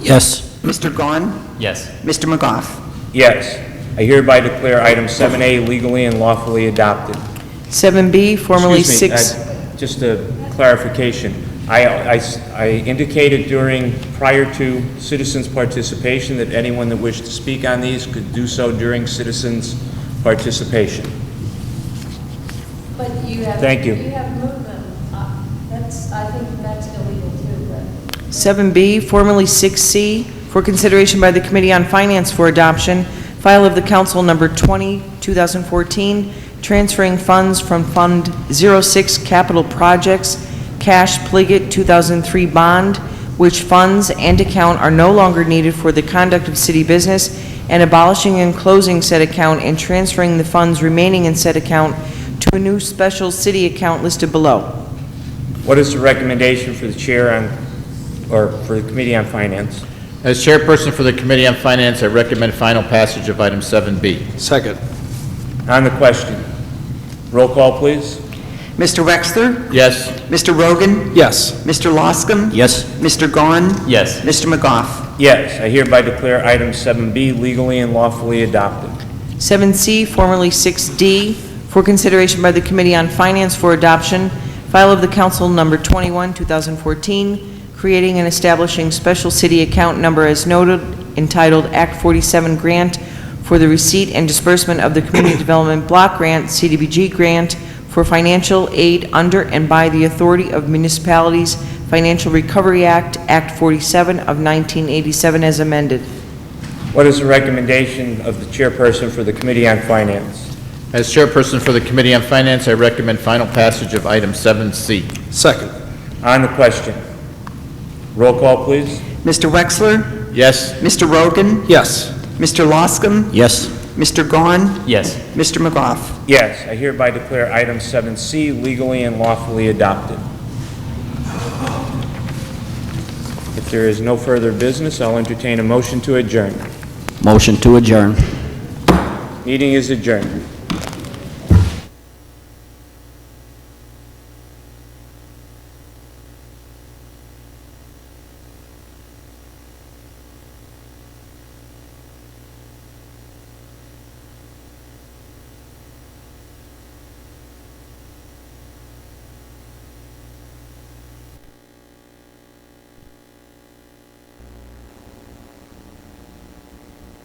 Yes. Mr. Gahn? Yes. Mr. McGough? Yes. I hereby declare item 7A legally and lawfully adopted. 7B, formerly Excuse me, 6... uh, Just a clarification. I- I s- I indicated during, prior to citizens' participation, that anyone that wished to speak on these could do so during citizens' participation. But you have. Thank you. You have movement. Uh, That's, I think that's illegal too, but uh, 7B, formerly 6C, for consideration by the Committee on Finance for Adoption, file of the Council Number 20, 2014, transferring funds from Fund 06 Capital Projects, Cash Pligot 2003 Bond, which funds and account are no longer needed for the conduct of city business, and abolishing and closing said account and transferring the funds remaining in said account to a new special city account listed below. What is the recommendation for the chair on, or for the Committee on Finance? As chairperson for the Committee on Finance, I recommend final passage of item 7B. Second. On the question. Roll call, please. Mr. Wexler? Yes. Mr. Rogan? Yes. Mr. Loscom? Yes. Mr. Gahn? Yes. Mr. McGough? Yes, I hereby declare item 7B legally and lawfully adopted. 7C, formerly 6D, for consideration by the Committee on Finance for Adoption, file of the Council Number 21, 2014, creating and establishing special city account number as noted entitled Act 47 Grant for the receipt and disbursement of the Community Development Block Grant, CDBG Grant, for financial aid under and by the authority of municipalities Financial Recovery Act, Act 47 of 1987 as amended. What is the recommendation of the chairperson for the Committee on Finance? As chairperson for the Committee on Finance, I recommend final passage of item 7C. Second. On the question. Roll call, please. Mr. Wexler? Yes. Mr. Rogan? Yes. Mr. Loscom? Yes. Mr. Gahn? Yes. Mr. McGough? Yes, I hereby declare item 7C legally and lawfully adopted. If there is no further business, I'll entertain a motion to adjourn. Motion to adjourn. Meeting is adjourned.